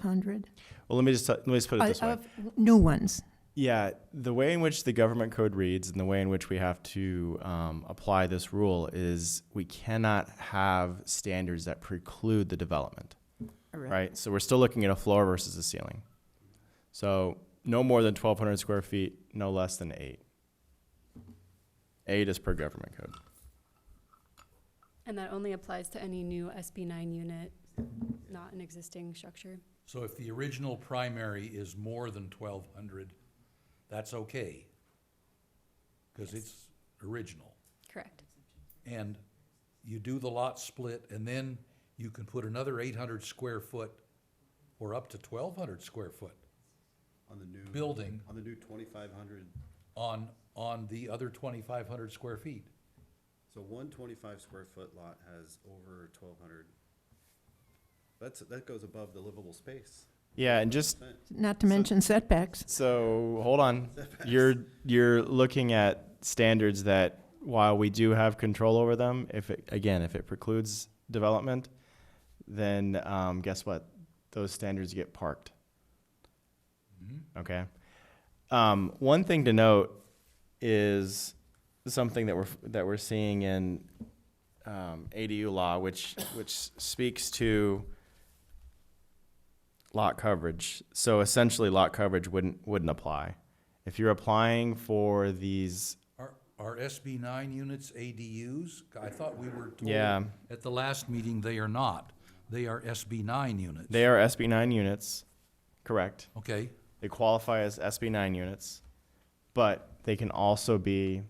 1,200? Well, let me just, let me just put it Uh, this way. of New ones. Yeah, the way in which the government code reads and the way in which we have to um, apply this rule is we cannot have standards that preclude the development, right? So we're still looking at a floor versus a ceiling. So no more than 1,200 square feet, no less than eight. Eight is per government code. And that only applies to any new SB nine unit, not an existing structure. So if the original primary is more than twelve hundred, that's okay. Cause it's original. Correct. And you do the lot split and then you can put another eight hundred square foot or up to twelve hundred square foot On the new. building On the new twenty-five hundred, on, on the other twenty-five hundred square feet. so one twenty-five square foot lot has over twelve hundred. That's, that goes above the livable space. Yeah, and just Not to mention setbacks. So hold on. You're you're looking at standards that while we do have control over them, if it, again if it precludes development, then um, guess what? Those standards get parked. Okay. Um, one thing to note is something that we're that we're seeing in um, ADU law, which which speaks to lot coverage. So essentially, lot coverage wouldn't wouldn't apply. If you're applying for these, Are, are SB nine units ADUs? I thought we were told Yeah. at the last meeting they are not. They are SB nine units. they are SB nine units, correct? Okay, They qualify as SB nine units, but they can also be,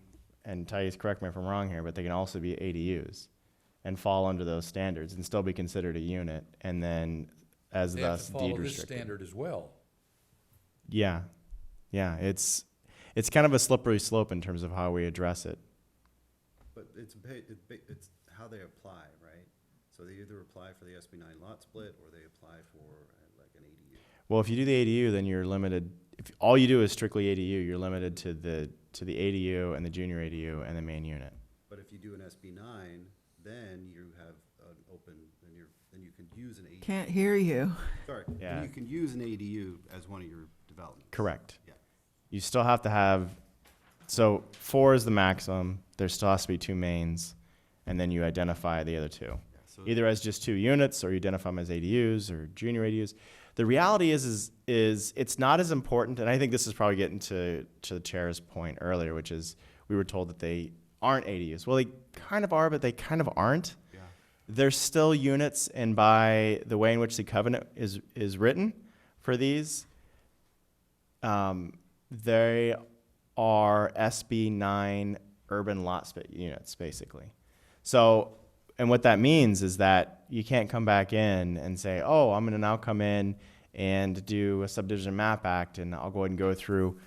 and Thais, correct me if I'm wrong here, but they can also be ADUs, and fall under those standards and still be considered a unit, and then as they have thus to deed follow this restricted. standard as well. Yeah, yeah, it's it's kind of a slippery slope in terms of how we address it. But it's, ba- it ba- it's how they apply, right? So they either apply for the SB nine lot split or they apply for uh, like an ADU. Well, if you do the ADU, then you're limited. If all you do is strictly ADU, you're limited to the to the ADU and the junior ADU and the main unit. But if you do an SB nine, then you have an open, then you're, then you can use an ADU. Can't hear you. Sorry, Yeah. then you can use an ADU as one of your developments. Correct. Yeah. You still have to have. So four is the maximum. There still has to be two mains, and then you identify the other two, Yeah, so- either as just two units or you identify them as ADUs or junior ADUs. The reality is, is, is it's not as important, and I think this is probably getting to to the chair's point earlier, which is we were told that they aren't ADUs. Well, they kind of are, but they kind of aren't. Yeah. They're still units, and by the way in which the covenant is is written for these, um, they are SB nine urban lot sp- units, basically. So, and what that means is that you can't come back in and say, "Oh, I'm going to now come in and do a subdivision map act, and I'll go ahead and go through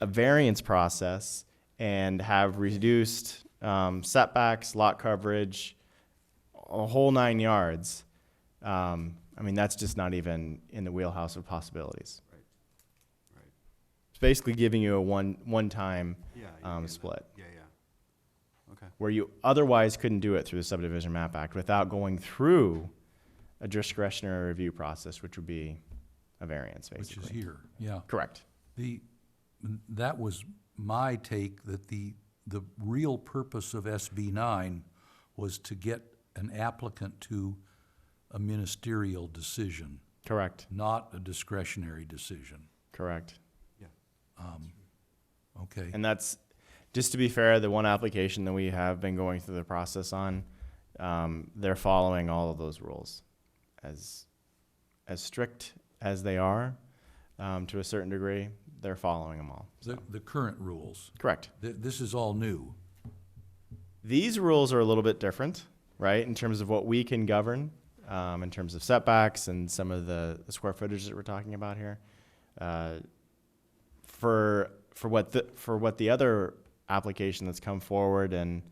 a variance process and have reduced um, setbacks, lot coverage, a whole nine yards." Um, I mean, that's just not even in the wheelhouse of possibilities. Right. It's basically giving you a one one time Yeah, you um, can, uh, split Yeah, yeah. Okay. where you otherwise couldn't do it through the subdivision map act without going through a discretionary review process, which would be a variance, Which basically. is here, yeah. Correct. The, that was my take, that the, the real purpose of SB nine was to get an applicant to a ministerial decision, Correct. not a discretionary decision, Correct. okay? And that's just to be fair. The one application that we have been going through the process on, um, they're following all of those rules, as as strict as they are, um, to a certain degree. They're following them all. The, the current rules, Correct. Th- this is all new. These rules are a little bit different, right, in terms of what we can govern, um, in terms of setbacks and some of the, the square footage that we're talking about here. Uh, for for what the for what the other application that's come forward, and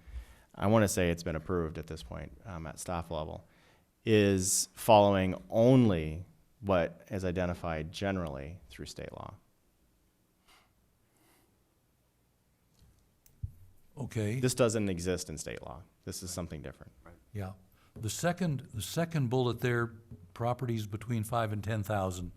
I want to say it's been approved at this point um, at staff level, is following only what is identified generally through state law. Okay, This doesn't exist in state law. This is something different. yeah. The second, the second bullet there, properties between five and ten thousand,